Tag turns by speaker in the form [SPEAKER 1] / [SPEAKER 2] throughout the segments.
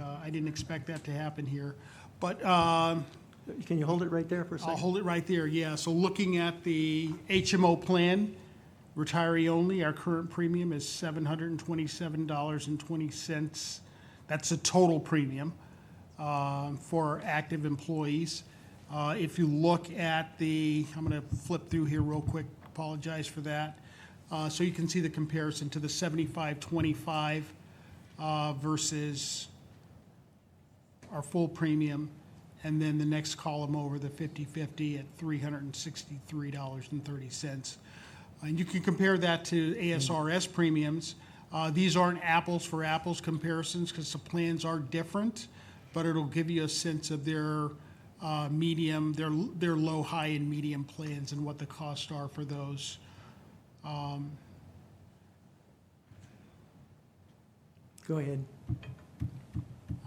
[SPEAKER 1] Uh, I didn't expect that to happen here. But um,
[SPEAKER 2] Can you hold it right there for a
[SPEAKER 1] I'll
[SPEAKER 2] second?
[SPEAKER 1] hold it right there, yeah. So looking at the HMO plan, retiree only, our current premium is $727.20. That's the total premium um, for active employees. Uh, If you look at the, I'm going to flip through here real quick, apologize for that. Uh, So you can see the comparison to the 7525 uh, versus our full premium, and then the next column over, the 50/50 at $363.30. And you can compare that to ASRS premiums. Uh, These aren't apples for apples comparisons because the plans are different, but it'll give you a sense of their uh, medium, their, their low, high, and medium plans and what the costs are for those.
[SPEAKER 2] Go ahead.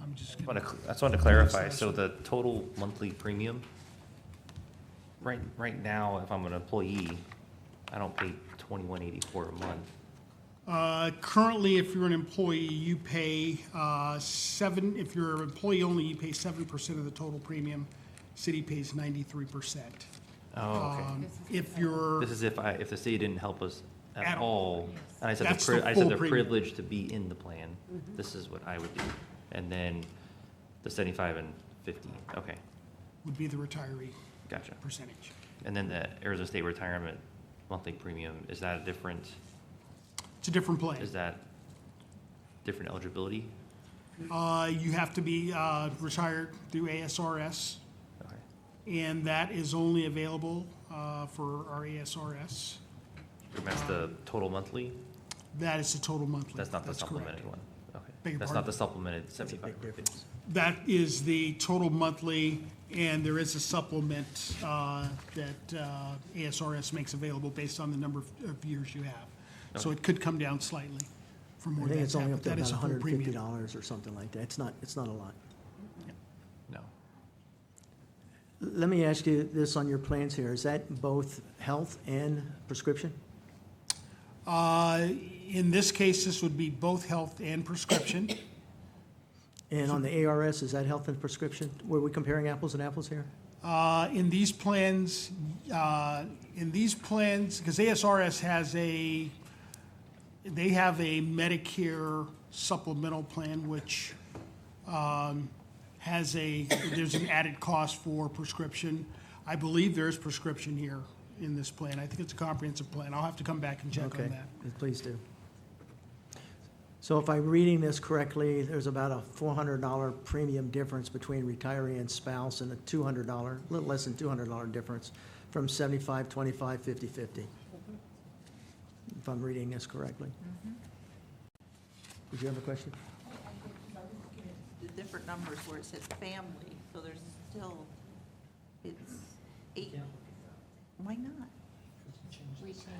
[SPEAKER 1] I'm just,
[SPEAKER 3] I wanna cl- I just wanted to clarify, so the total monthly premium, right, right now, if I'm an employee, I don't pay twenty-one eighty-four a month.
[SPEAKER 1] Uh, currently, if you're an employee, you pay uh, seven, if you're an employee only, you pay seven percent of the total premium. City pays ninety-three percent. Um,
[SPEAKER 3] Oh, okay.
[SPEAKER 1] If you're,
[SPEAKER 3] This is if I, if the city didn't help us
[SPEAKER 1] At
[SPEAKER 3] at all, and I said,
[SPEAKER 1] That's
[SPEAKER 3] the
[SPEAKER 1] the
[SPEAKER 3] pri- I said
[SPEAKER 1] full
[SPEAKER 3] the
[SPEAKER 1] premium. Mm-hmm.
[SPEAKER 3] privilege to be in the plan, this is what I would do. And then the seventy-five and fifty, okay,
[SPEAKER 1] would be the retiree
[SPEAKER 3] gotcha.
[SPEAKER 1] percentage.
[SPEAKER 3] And then the Arizona State Retirement Monthly Premium, is that a different,
[SPEAKER 1] It's a different plan.
[SPEAKER 3] is that different eligibility?
[SPEAKER 1] Uh, You have to be uh, retired through ASRS,
[SPEAKER 3] Okay.
[SPEAKER 1] and that is only available uh, for our ASRS.
[SPEAKER 3] And That's the total monthly?
[SPEAKER 1] That is the total monthly.
[SPEAKER 3] That's not the
[SPEAKER 1] correct.
[SPEAKER 3] supplemented one?
[SPEAKER 1] Beg
[SPEAKER 3] Okay.
[SPEAKER 1] your
[SPEAKER 3] That's
[SPEAKER 1] pardon?
[SPEAKER 3] not the supplemented
[SPEAKER 2] a big
[SPEAKER 3] seventy-five or fifty?
[SPEAKER 2] difference.
[SPEAKER 1] That is the total monthly, and there is a supplement uh, that uh, ASRS makes available based on the number of- of years you have. So it could come down slightly from
[SPEAKER 2] I
[SPEAKER 1] where
[SPEAKER 2] think
[SPEAKER 1] that's
[SPEAKER 2] it's
[SPEAKER 1] at,
[SPEAKER 2] only
[SPEAKER 1] but
[SPEAKER 2] up to
[SPEAKER 1] that
[SPEAKER 2] about
[SPEAKER 1] is a full
[SPEAKER 2] hundred and fifty
[SPEAKER 1] premium.
[SPEAKER 2] dollars or something like that. It's not, it's not a lot.
[SPEAKER 3] No.
[SPEAKER 2] Let me ask you this on your plans here. Is that both health and prescription?
[SPEAKER 1] Uh, In this case, this would be both health and prescription.
[SPEAKER 2] And on the ARS, is that health and prescription? Were we comparing apples and apples here?
[SPEAKER 1] Uh, In these plans, uh, in these plans, because ASRS has a, they have a Medicare supplemental plan, which um, has a, there's an added cost for prescription. I believe there is prescription here in this plan. I think it's a comprehensive plan. I'll have to come back and check on
[SPEAKER 2] Okay,
[SPEAKER 1] that.
[SPEAKER 2] please do. So if I'm reading this correctly, there's about a four hundred dollar premium difference between retiree and spouse and a two hundred dollar, a little less than two hundred dollar difference from seventy-five, twenty-five, fifty, fifty. If I'm reading this correctly.
[SPEAKER 1] Mm-hmm.
[SPEAKER 2] Did you have a question?
[SPEAKER 4] the different numbers where it says family, so there's still, it's eight. Why not?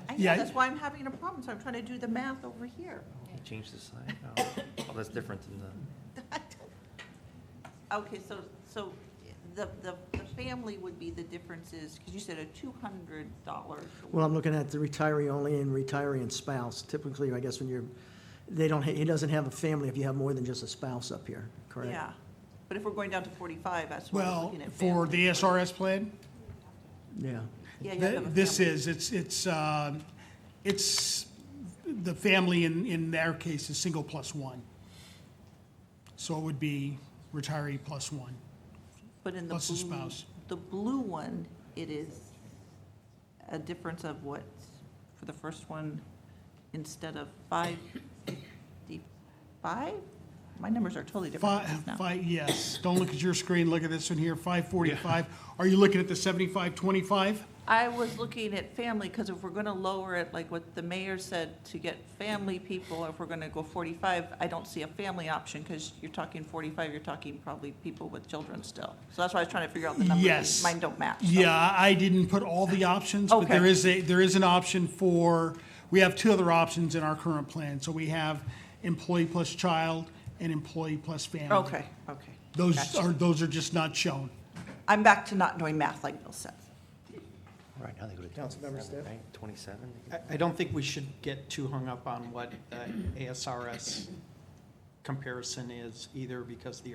[SPEAKER 4] I
[SPEAKER 1] Yeah,
[SPEAKER 4] know,
[SPEAKER 1] I-
[SPEAKER 4] that's why I'm having a problem, so I'm trying to do the math over here.
[SPEAKER 3] You changed the sign? Oh, Oh, that's different than the,
[SPEAKER 4] Okay, so, so the, the, the family would be the differences, because you said a two hundred dollar.
[SPEAKER 2] Well, I'm looking at the retiree only and retiree and spouse. Typically, I guess when you're, they don't, ha- he doesn't have a family if you have more than just a spouse up here, correct?
[SPEAKER 4] Yeah, but if we're going down to forty-five, that's what I'm
[SPEAKER 1] Well,
[SPEAKER 4] looking at.
[SPEAKER 1] for
[SPEAKER 4] family.
[SPEAKER 1] the ASRS plan?
[SPEAKER 2] Yeah.
[SPEAKER 4] Yeah, you have to have a
[SPEAKER 1] This
[SPEAKER 4] family.
[SPEAKER 1] is, it's, it's, uh, it's, the family in, in their case is single plus one. So it would be retiree plus one.
[SPEAKER 4] But in the
[SPEAKER 1] plus the
[SPEAKER 4] blue,
[SPEAKER 1] spouse.
[SPEAKER 4] the blue one, it is a difference of what, for the first one, instead of five fifty-five? My numbers are totally different
[SPEAKER 1] Five,
[SPEAKER 4] from this now.
[SPEAKER 1] five, yes, don't look at your screen, look at this one here, five forty-five. Are you looking at the seventy-five twenty-five?
[SPEAKER 4] I was looking at family, because if we're gonna lower it, like what the mayor said, to get family people, if we're gonna go forty-five, I don't see a family option, because you're talking forty-five, you're talking probably people with children still. So that's why I was trying to figure out the numbers.
[SPEAKER 1] Yes.
[SPEAKER 4] Mine don't match. so-
[SPEAKER 1] Yeah, Uh, I didn't put all the options, but
[SPEAKER 4] Okay.
[SPEAKER 1] there is a, there is an option for, we have two other options in our current plan. So we have employee plus child and employee plus family.
[SPEAKER 4] Okay, okay.
[SPEAKER 1] Those
[SPEAKER 4] Gotcha.
[SPEAKER 1] are, those are just not shown.
[SPEAKER 4] I'm back to not doing math like Bill said.
[SPEAKER 3] right now they go to
[SPEAKER 2] Councilmember
[SPEAKER 3] twenty-seven,
[SPEAKER 2] Stiff?
[SPEAKER 3] right? Twenty-seven?
[SPEAKER 5] I- I don't think we should get too hung up on what the ASRS comparison is either, because the